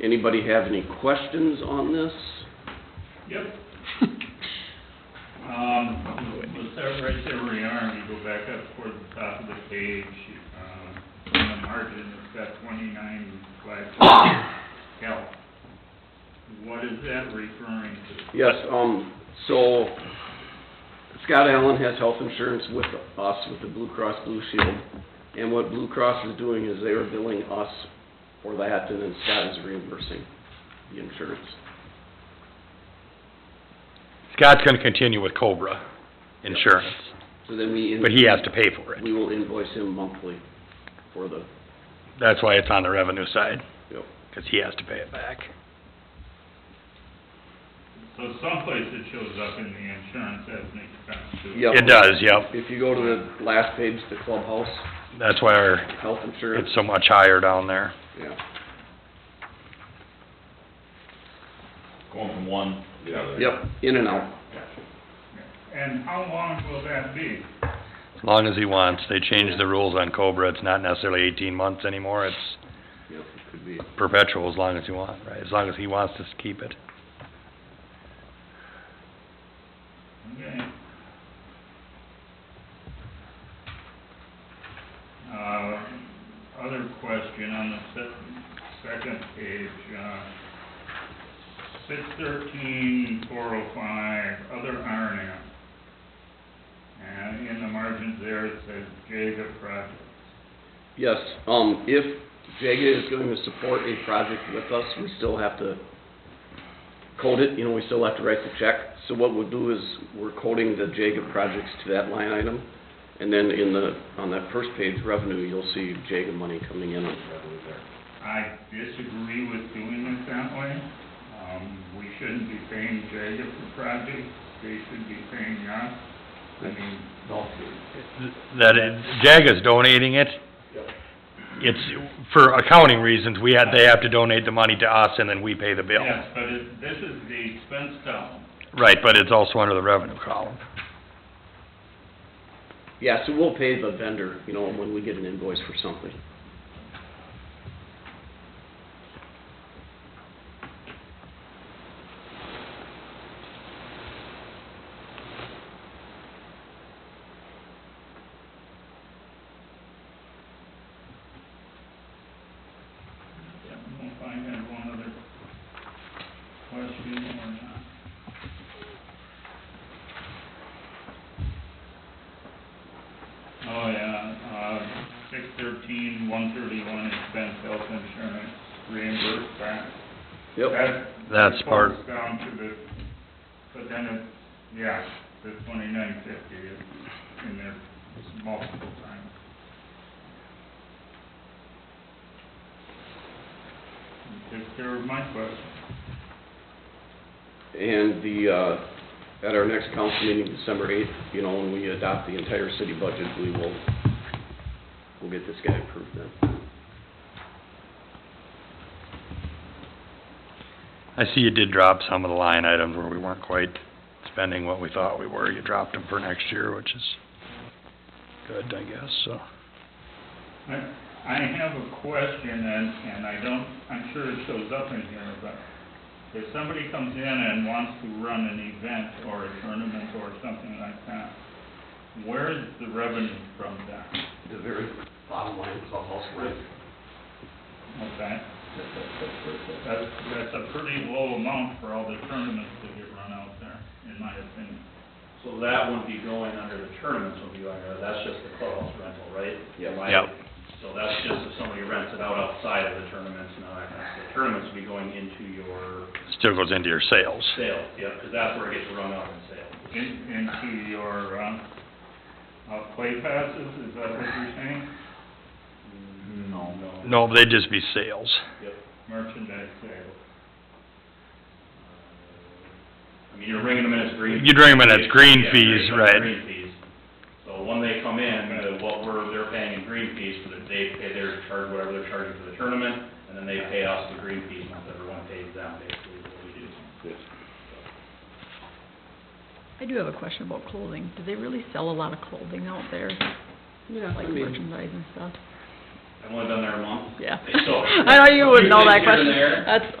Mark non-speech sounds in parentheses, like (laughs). Anybody have any questions on (coughs) this? Yep. Um, let's start right there where you are, and you go back up towards the top of the page, uh, on the margin, it's got twenty-nine slash L. What is that referring to? Yes, um, so Scott Allen has health insurance with us, with the Blue Cross Blue Shield. And what Blue Cross is doing is they are billing us for that and then Scott is reimbursing the insurance. Scott's gonna continue with Cobra Insurance, So then we. but he has to pay for it. We will invoice him monthly for the, That's why it's on the revenue side, yep. cause he has to pay it back. So someplace it shows up in the insurance as an expense too. Yep. It does, yep. If you go to the last page, the clubhouse, That's why our, health insurance, it's so much higher down there. yeah. Going from one to the other. Yep, in and out. And how long will that be? As long as he wants. They changed the rules on Cobra. It's not necessarily eighteen months anymore. It's Yep, it could be. perpetual as long as you want, right? As long as he wants to keep it. Okay. Uh, other question on the se- second page, uh, six thirteen, four oh five, other R and M. And in the margins there, it says Jacob Projects. Yes, um, if JAGA is going to support a project with us, we still have to code it, you know, we still have to write the check. So what we'll do is, we're coding the JAGA projects to that line item. And then in the, on that first page, revenue, you'll see JAGA money coming in on revenue there. I disagree with doing it that way. Um, we shouldn't be paying Jacob for projects, they should be paying us. I mean, That, it- JAGA's donating it. It's, for accounting reasons, we had, they have to donate the money to us and then we pay the bill. Yes, but it, this is the expense column. Right, but it's also under the revenue column. Yeah, so we'll pay the vendor, you know, when we get an invoice for something. I don't know if I had one other question or not. Oh, yeah, uh, six thirteen, one thirty-one expense health insurance reimbursed back. Yep, That- That's that part- falls Down to the, but then it, yeah, the twenty-nine fifty is in there multiple times. Takes care of my question. and the, uh, at our next council meeting, December eighth, you know, when we adopt the entire city budget, we will, we'll get this guy approved then. I see you did drop some of the line items where we weren't quite spending what we thought we were. You dropped them for next year, which is good, I guess, so. I, I have a question and, and I don't, I'm sure it shows up in here, but if somebody comes in and wants to run an event or a tournament or something like that, where is the revenue from that? The very bottom line is all house rent. Okay, that's, that's a pretty low amount for all the tournaments that get run out there, in my opinion. So that wouldn't be going under the tournaments, would be going under, that's just the clubhouse rental, right? Yep. Am I- Yep. So that's just if somebody rents it out outside of the tournaments and all that kind of stuff. Tournaments would be going into your Still goes into your sales. sales, yeah, because that's where it gets run out in sales. In, into your, um, uh, play passes, is that what you're saying? No. No. No, they'd just be sales. Yep. Merchandise sales. Uh, I mean, you're bringing them in as green. You're bringing them in as green Yeah, fees, bringing them in as right. Green fees. So when they come in, uh, what we're, they're paying in green fees for the, they pay their charge, whatever they're charging for the tournament, and then they pay us the green fees, once everyone pays them, basically, is what we do. I do have a question about clothing. Do they really sell a lot of clothing out there? Yeah. Like I mean- merchandise and stuff? I've only been there a month. Yeah. So- I know you wouldn't know Few that (laughs) things here and question. there. That's,